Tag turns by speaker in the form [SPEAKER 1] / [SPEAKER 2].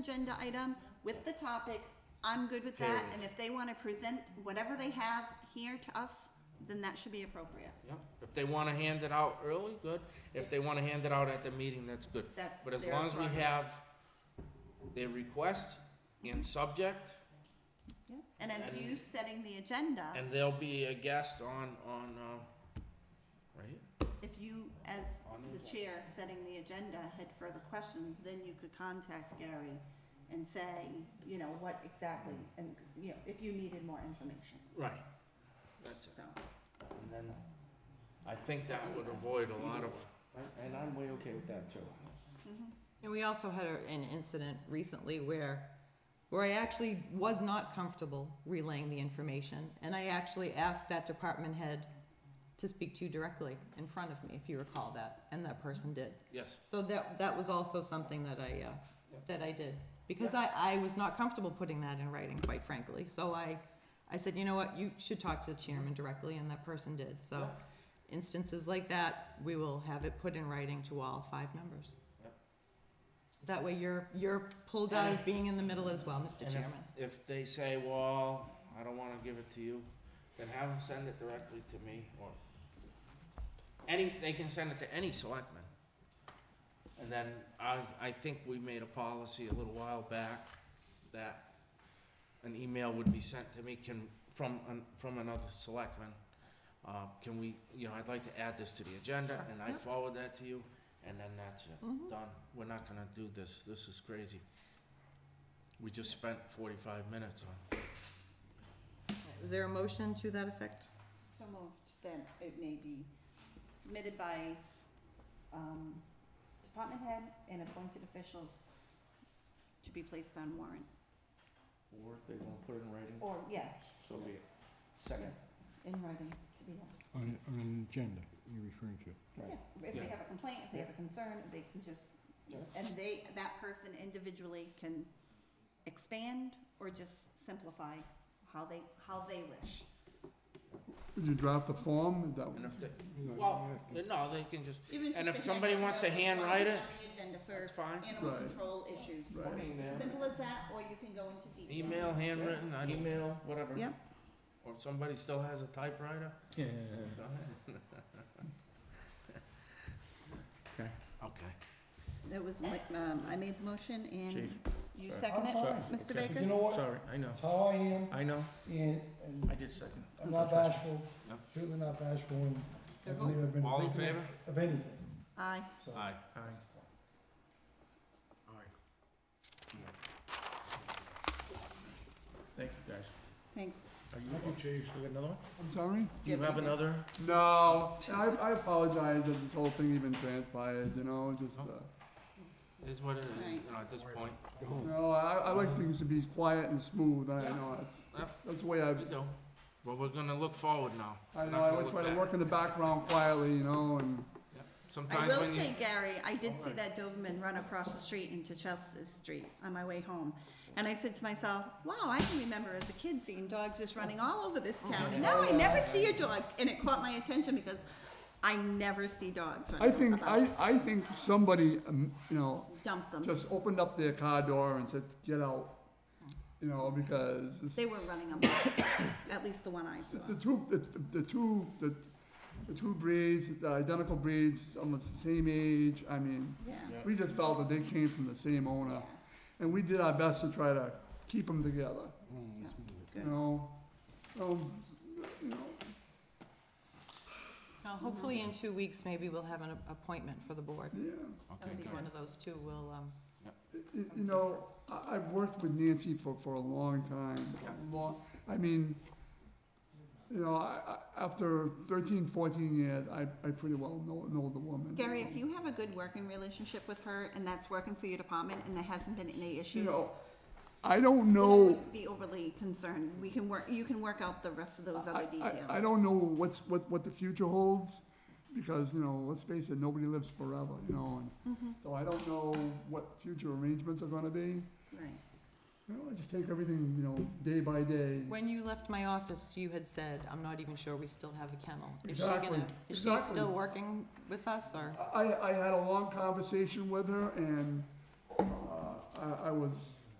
[SPEAKER 1] agenda item with the topic, I'm good with that,
[SPEAKER 2] Period.
[SPEAKER 1] and if they wanna present whatever they have here to us, then that should be appropriate.
[SPEAKER 2] Yep. If they wanna hand it out early, good. If they wanna hand it out at the meeting, that's good.
[SPEAKER 1] That's
[SPEAKER 2] But as
[SPEAKER 1] their
[SPEAKER 2] long as we
[SPEAKER 1] prerogative.
[SPEAKER 2] have their request and subject,
[SPEAKER 1] Yeah. And as you setting the agenda,
[SPEAKER 2] and they'll be a guest on, on, uh, right?
[SPEAKER 1] if you, as
[SPEAKER 2] On the
[SPEAKER 1] the chair setting the agenda, had further questions, then you could contact Gary and say, you know, what exactly, and, you know, if you needed more information,
[SPEAKER 2] Right. That's it.
[SPEAKER 1] so.
[SPEAKER 3] And then,
[SPEAKER 2] I think that would avoid a lot of,
[SPEAKER 3] I- and I'm way okay with that too.
[SPEAKER 1] mhm.
[SPEAKER 4] And we also had a- an incident recently where, where I actually was not comfortable relaying the information, and I actually asked that department head to speak to you directly in front of me, if you recall that, and that person did.
[SPEAKER 2] yes.
[SPEAKER 4] So that, that was also something that I, uh,
[SPEAKER 2] Yeah.
[SPEAKER 4] that I did, because I, I was not comfortable putting that in writing, quite frankly, so I, I said, you know what, you should talk to the chairman directly, and that person did, so
[SPEAKER 2] Yeah.
[SPEAKER 4] instances like that, we will have it put in writing to all five members.
[SPEAKER 2] Yep.
[SPEAKER 4] That way you're, you're pulled out of being in the middle as well,
[SPEAKER 2] And
[SPEAKER 4] Mr.
[SPEAKER 2] if-
[SPEAKER 4] Chairman.
[SPEAKER 2] If they say, well, I don't wanna give it to you, then have them send it directly to me or any, they can send it to any selectman. And then I, I think we made a policy a little while back that an email would be sent to me can, from, an- from another selectman. Uh, can we, you know, I'd like to add this to the agenda and I
[SPEAKER 4] Yep.
[SPEAKER 2] forward that to you and then that's it
[SPEAKER 4] Mhm.
[SPEAKER 2] done, we're not gonna do this, this is crazy. We just spent forty-five minutes on,
[SPEAKER 4] Is there a motion to that effect?
[SPEAKER 1] So moved, then it may be submitted by, um, department head and appointed officials to be placed on warrant,
[SPEAKER 3] Or if they want to put it in writing,
[SPEAKER 1] or, yeah,
[SPEAKER 3] so be it. Second.
[SPEAKER 1] in writing, to be, uh,
[SPEAKER 5] On, a- on an agenda you're referring to.
[SPEAKER 3] Right.
[SPEAKER 1] yeah, if they
[SPEAKER 2] Yeah.
[SPEAKER 1] have a complaint, if they have a concern, they can just,
[SPEAKER 3] Yeah.
[SPEAKER 1] and they, that person individually can expand or just simplify how they, how they wish.
[SPEAKER 6] Would you drop the form? Is that-
[SPEAKER 2] and if they,
[SPEAKER 5] You know, you
[SPEAKER 2] well,
[SPEAKER 5] have to-
[SPEAKER 2] no, they can just,
[SPEAKER 1] Even
[SPEAKER 2] And
[SPEAKER 1] just
[SPEAKER 2] if
[SPEAKER 1] a
[SPEAKER 2] somebody
[SPEAKER 1] handwritten
[SPEAKER 2] wants to
[SPEAKER 1] note, you want
[SPEAKER 2] handwrite
[SPEAKER 1] this
[SPEAKER 2] it,
[SPEAKER 1] On the agenda
[SPEAKER 2] that's
[SPEAKER 1] for
[SPEAKER 2] fine.
[SPEAKER 1] animal
[SPEAKER 6] Right.
[SPEAKER 1] control issues,
[SPEAKER 6] Right.
[SPEAKER 1] simple as that, or you can go into detail.
[SPEAKER 2] Email, handwritten, I don't,
[SPEAKER 3] Email,
[SPEAKER 2] whatever.
[SPEAKER 1] Yep.
[SPEAKER 2] Or if somebody still has a typewriter, go ahead.
[SPEAKER 3] Okay.
[SPEAKER 2] Okay.
[SPEAKER 1] That was, my- um, I made the motion and
[SPEAKER 3] Chief,
[SPEAKER 1] you
[SPEAKER 3] sorry.
[SPEAKER 1] second it,
[SPEAKER 3] I'm sorry.
[SPEAKER 1] Mr.
[SPEAKER 3] Okay.
[SPEAKER 1] Baker?
[SPEAKER 7] You know what,
[SPEAKER 2] Sorry, I know,
[SPEAKER 7] that's how I am,
[SPEAKER 2] I know,
[SPEAKER 7] and, and
[SPEAKER 2] I did second.
[SPEAKER 7] I'm not
[SPEAKER 2] Trust me.
[SPEAKER 7] bashful,
[SPEAKER 2] No.
[SPEAKER 7] certainly not bashful, and I believe I've been
[SPEAKER 2] All
[SPEAKER 7] a
[SPEAKER 2] in
[SPEAKER 7] victim
[SPEAKER 2] favor?
[SPEAKER 7] of anything,
[SPEAKER 1] Aye.
[SPEAKER 7] so.
[SPEAKER 2] Aye.
[SPEAKER 3] Aye.
[SPEAKER 2] All right.
[SPEAKER 3] Thank you, guys.
[SPEAKER 1] Thanks.
[SPEAKER 3] Are you, you have another one?
[SPEAKER 6] I'm sorry?
[SPEAKER 2] Do you have another?
[SPEAKER 6] No, I, I apologize that this whole thing even transpired, you know, just, uh,
[SPEAKER 2] It is what it is, you
[SPEAKER 1] Right.
[SPEAKER 2] know, at this point,
[SPEAKER 6] no, I, I like things to be quiet and smooth, I know,
[SPEAKER 2] Yeah.
[SPEAKER 6] that's, that's the way I,
[SPEAKER 2] we do. But we're gonna look forward now.
[SPEAKER 6] I
[SPEAKER 2] We're
[SPEAKER 6] know,
[SPEAKER 2] not
[SPEAKER 6] I
[SPEAKER 2] gonna
[SPEAKER 6] always
[SPEAKER 2] look
[SPEAKER 6] try to
[SPEAKER 2] back.
[SPEAKER 6] work in the background quietly, you know, and,
[SPEAKER 1] I
[SPEAKER 2] Sometimes
[SPEAKER 1] will
[SPEAKER 2] when you,
[SPEAKER 1] say, Gary, I did see that Doberman run across the street into Chelsea Street on my way home. And I said to myself, wow, I can remember as a kid seeing dogs just running all over this
[SPEAKER 2] Oh,
[SPEAKER 1] town. And now I never see a dog. And it caught my attention because I never see dogs
[SPEAKER 6] I
[SPEAKER 1] running
[SPEAKER 6] think, I,
[SPEAKER 1] about.
[SPEAKER 6] I think somebody, um, you know,
[SPEAKER 1] Dump them.
[SPEAKER 6] just opened up their car door and said, get out, you know, because this
[SPEAKER 1] They were running a lot, at least the one I saw.
[SPEAKER 6] The two, the, the two, the, the two breeds, the identical breeds, almost the same age, I mean,
[SPEAKER 1] Yeah.
[SPEAKER 6] we just felt that they came from the same owner. And we did our best to try to keep them together,
[SPEAKER 5] Hmm.
[SPEAKER 6] you
[SPEAKER 1] Good.
[SPEAKER 6] know? So, you know,
[SPEAKER 4] Now, hopefully in two weeks, maybe we'll have an a- appointment for the board.
[SPEAKER 6] yeah,
[SPEAKER 2] okay,
[SPEAKER 4] Maybe
[SPEAKER 2] good.
[SPEAKER 4] one of those two will, um,
[SPEAKER 6] you, you know, I, I've worked with Nancy for, for a long time, a long, I mean, you know, I, I, after thirteen, fourteen years, I, I pretty well know, know the woman.
[SPEAKER 1] Gary, if you have a good working relationship with her and that's working for your department and there hasn't been any
[SPEAKER 6] You
[SPEAKER 1] issues,
[SPEAKER 6] know, I don't
[SPEAKER 1] then I
[SPEAKER 6] know.
[SPEAKER 1] wouldn't be overly concerned. We can work, you can work out the rest of those
[SPEAKER 6] I-
[SPEAKER 1] other
[SPEAKER 6] I-
[SPEAKER 1] details.
[SPEAKER 6] I don't know what's, what, what the future holds, because, you know, let's face it, nobody lives forever, you know, and
[SPEAKER 1] Mm-hmm.
[SPEAKER 6] so I don't know what future arrangements are gonna be.
[SPEAKER 1] Right.
[SPEAKER 6] You know, I just take everything, you know, day by day.
[SPEAKER 4] when you left my office, you had said, I'm not even sure we still have a kennel. Is she
[SPEAKER 6] Exactly,
[SPEAKER 4] gonna, is she
[SPEAKER 6] exactly.
[SPEAKER 4] still working with us, or?
[SPEAKER 6] I, I had a long conversation with her, and, uh, I, I, I was